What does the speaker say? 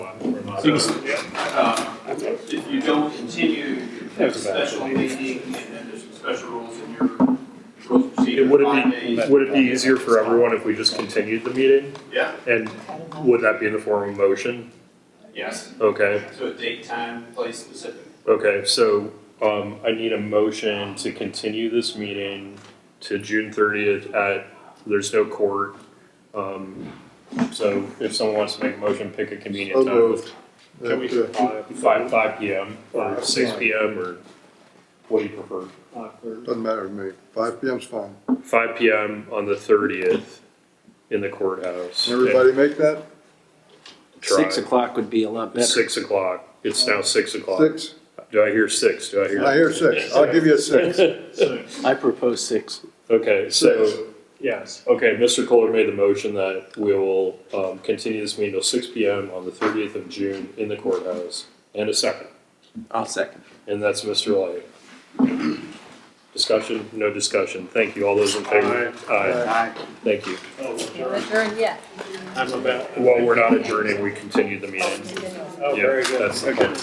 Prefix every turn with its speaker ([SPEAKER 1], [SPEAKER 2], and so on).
[SPEAKER 1] So you uh, If you don't continue your special meeting, and then there's some special rules in your rules of procedure.
[SPEAKER 2] It would
[SPEAKER 1] five
[SPEAKER 2] it
[SPEAKER 1] days.
[SPEAKER 2] be, would it be easier for everyone if we just continued the meeting?
[SPEAKER 1] Yeah,
[SPEAKER 2] And would that be in the form of motion?
[SPEAKER 1] yes.
[SPEAKER 2] Okay,
[SPEAKER 1] So a date, time, place specific.
[SPEAKER 2] okay, so, um, I need a motion to continue this meeting to June thirtieth at, there's no court. Um, so if someone wants to make a motion, pick a convenient
[SPEAKER 3] So
[SPEAKER 2] time.
[SPEAKER 3] moved.
[SPEAKER 2] Can we, five, five P M or six P M or what do you prefer?
[SPEAKER 3] Doesn't matter to me. Five PM's fine.
[SPEAKER 2] Five P M on the thirtieth in the courthouse.
[SPEAKER 3] Everybody make that?
[SPEAKER 2] Try.
[SPEAKER 4] Six o'clock would be a lot better.
[SPEAKER 2] Six o'clock. It's now six o'clock.
[SPEAKER 3] Six?
[SPEAKER 2] Do I hear six? Do I hear?
[SPEAKER 3] I hear six. I'll give you a six.
[SPEAKER 4] I propose six.
[SPEAKER 2] Okay, so,
[SPEAKER 3] Six.
[SPEAKER 2] yes, okay, Mr. Kohler made the motion that we will, um, continue this meeting till six P M on the thirtieth of June in the courthouse. And a second,
[SPEAKER 4] I'll second.
[SPEAKER 2] and that's Mr. Light. Discussion? No discussion. Thank you. All those in favor? Aye. Thank you.
[SPEAKER 5] You adjourned yet.
[SPEAKER 2] While we're not adjourning, we continue the meeting.
[SPEAKER 5] Continue.
[SPEAKER 2] Yeah, that's the plan.